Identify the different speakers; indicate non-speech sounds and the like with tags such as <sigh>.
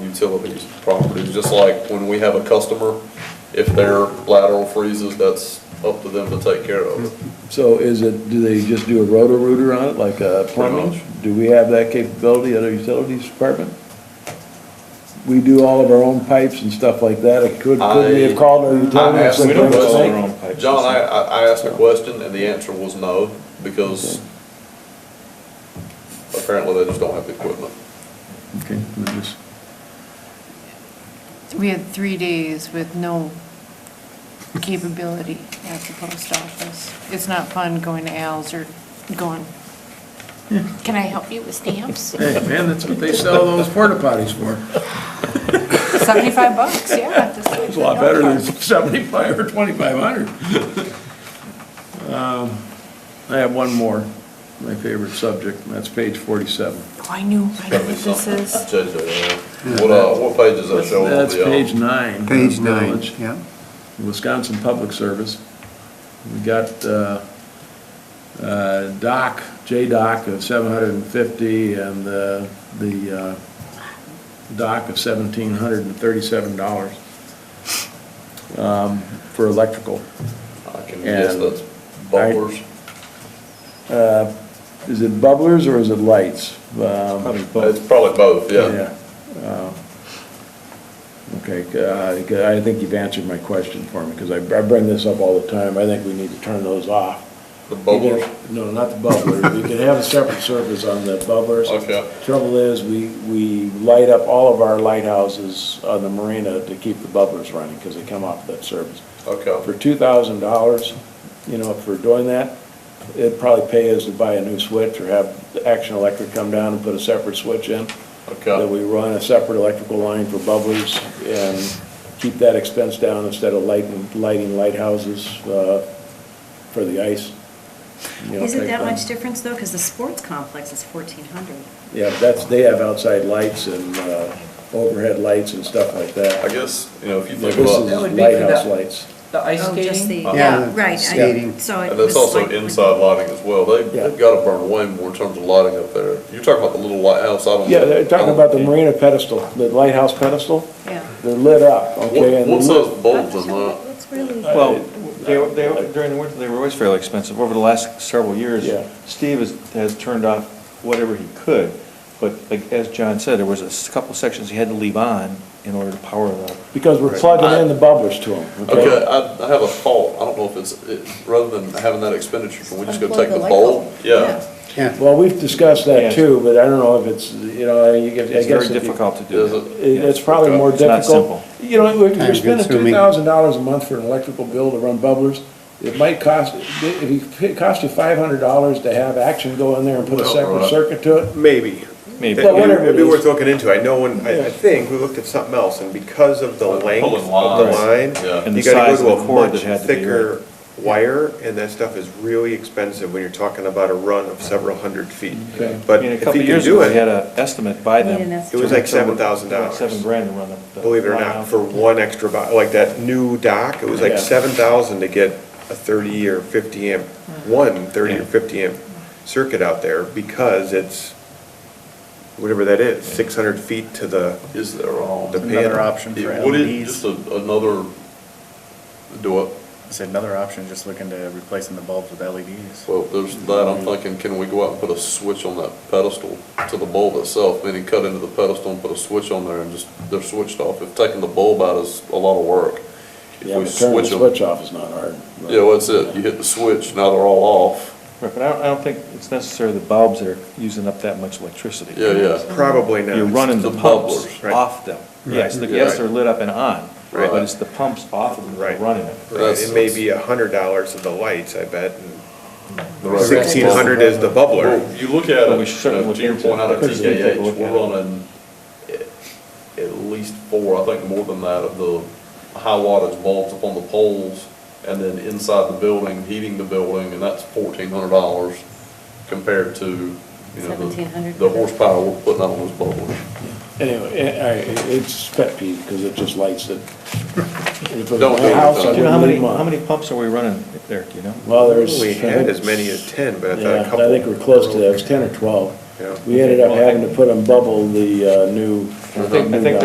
Speaker 1: utilities properties, just like when we have a customer, if their lateral freezes, that's up to them to take care of.
Speaker 2: So is it, do they just do a roto-rooter on it, like uh, plumbing?
Speaker 1: much.
Speaker 2: Do we have that capability at our utilities department? We do all of our own pipes and stuff like that, It could, could we
Speaker 1: I-
Speaker 2: have called our utilities?
Speaker 1: asked-
Speaker 2: and
Speaker 1: we don't
Speaker 2: done the
Speaker 1: do all our
Speaker 2: same?
Speaker 3: own pipes.
Speaker 1: John, I, I I asked a question and the answer was no, because apparently they just don't have the equipment.
Speaker 2: Okay, we're just-
Speaker 4: We had three days with no capability at the post office. It's not fun going to Al's or going, can I help you with
Speaker 5: <laughs>
Speaker 4: stamps?
Speaker 5: Hey, man, that's what they sell those porta potties for.
Speaker 4: 75 bucks, yeah. just like
Speaker 5: It's a lot
Speaker 4: the dog
Speaker 5: better than
Speaker 4: park.
Speaker 5: <laughs> seventy-five or twenty-five hundred. Um, I have one more, my favorite subject, and that's page forty-seven.
Speaker 4: Oh, I knew, I knew
Speaker 1: Gotta be
Speaker 4: what this
Speaker 1: something.
Speaker 4: is.
Speaker 1: Change that around. What, uh, what page does that show? on
Speaker 5: That's
Speaker 1: the, uh,
Speaker 5: page nine.
Speaker 3: Page
Speaker 5: of the
Speaker 3: nine,
Speaker 5: village.
Speaker 3: yeah.
Speaker 5: Wisconsin Public Service. We got uh, uh, Doc, J-Doc of 750 and uh, the uh, Doc of $1,737 um, for electrical.
Speaker 1: I can guess
Speaker 5: And-
Speaker 1: that's bumpers.
Speaker 5: Uh, Is it bubblers or is it lights? Probably
Speaker 1: It's probably both, yeah.
Speaker 5: uh, Okay, uh, I think you've answered my question for me, because I I bring this up all the time. I think we need to turn those off.
Speaker 1: The bubblers.
Speaker 5: No, not the bubblers. We can have a separate service on the bubblers.
Speaker 1: Okay.
Speaker 5: Trouble is, we, we light up all of our lighthouses on the marina to keep the bubblers running, because they come off that service. For
Speaker 1: Okay.
Speaker 5: two thousand dollars, you know, for doing that, it'd probably pay us to buy a new switch or have Action Electric come down and put a separate switch in uh, that
Speaker 1: Okay.
Speaker 5: we run a separate electrical line for bubblers and keep that expense down instead of lighting, lighting lighthouses uh, for the ice. you know,
Speaker 6: Is it
Speaker 5: type
Speaker 6: that
Speaker 5: thing.
Speaker 6: much difference though? Because the sports complex is fourteen hundred.
Speaker 5: Yeah, that's, they have outside lights and uh, overhead lights and stuff like
Speaker 1: I
Speaker 5: that.
Speaker 1: guess, you know, if you
Speaker 5: This
Speaker 1: think
Speaker 5: is
Speaker 1: about.
Speaker 7: would be for
Speaker 5: lighthouse
Speaker 7: that.
Speaker 5: lights.
Speaker 7: The ice
Speaker 6: Oh, just the,
Speaker 7: skating?
Speaker 1: Uh,
Speaker 6: yeah, right. I-
Speaker 3: skating.
Speaker 6: So it
Speaker 1: And
Speaker 6: was
Speaker 1: that's also
Speaker 6: like-
Speaker 1: inside lighting as well. They,
Speaker 5: Yeah.
Speaker 1: they've gotta burn way more in terms of lighting up there. You're talking about the little lighthouse out on.
Speaker 5: Yeah, they're talking about the marina pedestal, the lighthouse pedestal.
Speaker 4: Yeah.
Speaker 5: They're lit up, okay?
Speaker 1: What,
Speaker 5: and Uh,
Speaker 1: what's
Speaker 5: the-
Speaker 1: those bulbs in that?
Speaker 6: That's really.
Speaker 8: Well, they, they, during the winter, they were always fairly expensive. Over the last several years,
Speaker 5: Yeah.
Speaker 8: Steve has, has turned off whatever he could. But like, as John said, there was a s- couple sections he had to leave on in order to power the,
Speaker 5: Because we're plugging in the bubblers to them,
Speaker 1: Okay, I, I have a thought. I don't know if it's, it, rather than having that expenditure, can we just go
Speaker 4: Unplug
Speaker 1: take
Speaker 4: the
Speaker 1: the
Speaker 4: light
Speaker 1: bulb?
Speaker 4: bulb.
Speaker 1: Yeah.
Speaker 5: Well, we've discussed that
Speaker 8: Yes.
Speaker 5: too, but I don't know if it's, you know, you get, I guess.
Speaker 8: it's very
Speaker 5: if you-
Speaker 8: difficult to do
Speaker 1: Is
Speaker 8: that.
Speaker 1: it?
Speaker 5: it- It's probably more
Speaker 8: It's not
Speaker 5: difficult. You know, if you're spending two
Speaker 3: consuming.
Speaker 5: thousand dollars a month for an electrical bill to run bubblers, it might cost, if it costs you five hundred dollars to have Action go in there and put a
Speaker 1: Well,
Speaker 5: separate
Speaker 1: right.
Speaker 5: circuit to it,
Speaker 9: Maybe.
Speaker 8: Maybe.
Speaker 5: Well, whatever
Speaker 9: It'd be
Speaker 5: it is.
Speaker 9: worth looking into. I know when, I,
Speaker 5: Yeah.
Speaker 9: I think we looked at something else, and because of the
Speaker 1: Like
Speaker 9: length
Speaker 1: pulling
Speaker 9: of the line,
Speaker 1: lines, yeah.
Speaker 8: And
Speaker 9: you
Speaker 8: the
Speaker 9: gotta
Speaker 8: size of
Speaker 9: go
Speaker 8: the
Speaker 9: to a
Speaker 8: cord
Speaker 9: much
Speaker 8: that had to be,
Speaker 9: thicker wire, and that stuff is really expensive when you're talking about a run of several hundred feet.
Speaker 5: Okay.
Speaker 8: I
Speaker 9: But
Speaker 8: mean, a
Speaker 9: if
Speaker 8: couple
Speaker 9: you can
Speaker 8: years
Speaker 9: do
Speaker 8: ago, we had
Speaker 9: it,
Speaker 8: an estimate by
Speaker 6: Need
Speaker 8: them.
Speaker 6: an estimate.
Speaker 9: It was like $7,000.
Speaker 8: Seven grand to run the. the
Speaker 9: believe it or
Speaker 8: line
Speaker 9: not,
Speaker 8: out.
Speaker 9: for one extra, bo- like that new dock, it was
Speaker 5: Yeah.
Speaker 9: like seven thousand to get a thirty or fifty amp,
Speaker 5: Mm.
Speaker 9: one thirty or fifty amp circuit out there, because it's, whatever that is, six hundred feet to the,
Speaker 1: Is there all?
Speaker 9: the panel.
Speaker 1: It- Would
Speaker 5: E
Speaker 1: it, just a- another, do it?
Speaker 10: It's another option, just looking to replacing the bulbs with E LEDs.
Speaker 1: Well, there's that, I'm thinking, can we go out and put a switch on that pedestal to the bulb itself, meaning cut into the pedestal and put a switch on there and just, they're switched off. If taking the bulb out is a lot of work. If
Speaker 5: yeah,
Speaker 1: we
Speaker 5: but turning the
Speaker 1: switch them,
Speaker 5: switch off is not hard.
Speaker 1: Yeah, well, that's it, you hit the switch, now they're all off.
Speaker 8: Right, But I don't, I don't think it's necessarily the bulbs that are using up that much electricity.
Speaker 1: Yeah, yeah.
Speaker 9: probably not.
Speaker 8: You're running the
Speaker 1: The
Speaker 8: pumps
Speaker 1: bubblers,
Speaker 9: right.
Speaker 8: off them. Yes, the-
Speaker 1: Yeah.
Speaker 8: yes, they're lit up and on,
Speaker 1: Right.
Speaker 8: but it's the pumps off of them that are
Speaker 9: Right.
Speaker 8: running it.
Speaker 9: Right, it may be a hundred dollars of the lights, I bet,
Speaker 1: The
Speaker 9: and
Speaker 1: rest-
Speaker 9: sixteen hundred is the
Speaker 1: Well,
Speaker 9: bubbler.
Speaker 1: You look at
Speaker 8: But we
Speaker 1: it,
Speaker 8: should
Speaker 1: you know,
Speaker 8: look
Speaker 1: to your
Speaker 8: into
Speaker 1: point out
Speaker 8: it.
Speaker 1: of
Speaker 8: Because we take a
Speaker 1: TKH,
Speaker 8: look
Speaker 1: we're
Speaker 8: at it.
Speaker 1: running at- at least four, I think more than that, of the high wattage bulbs up on the poles, and then inside the building, heating the building, and that's fourteen hundred dollars compared to, you know, the-
Speaker 6: $1,700
Speaker 1: the horsepower we're putting out on those bulbs.
Speaker 5: Anyway, eh, I- it's pet peeve, because it just lights it. If it was
Speaker 1: Don't do
Speaker 5: my
Speaker 1: it,
Speaker 5: house, I
Speaker 1: though.
Speaker 8: Do you know how
Speaker 5: wouldn't
Speaker 8: many,
Speaker 5: leave mine.
Speaker 8: how many pumps are we running there, do you know?
Speaker 5: Well, there's.
Speaker 9: We had as many as ten, but I thought a
Speaker 5: Yeah, I
Speaker 9: couple.
Speaker 5: think we're close to that, it was ten or twelve.
Speaker 9: Yeah.
Speaker 5: We ended up having to put on bubble the uh, new.
Speaker 8: I think- I think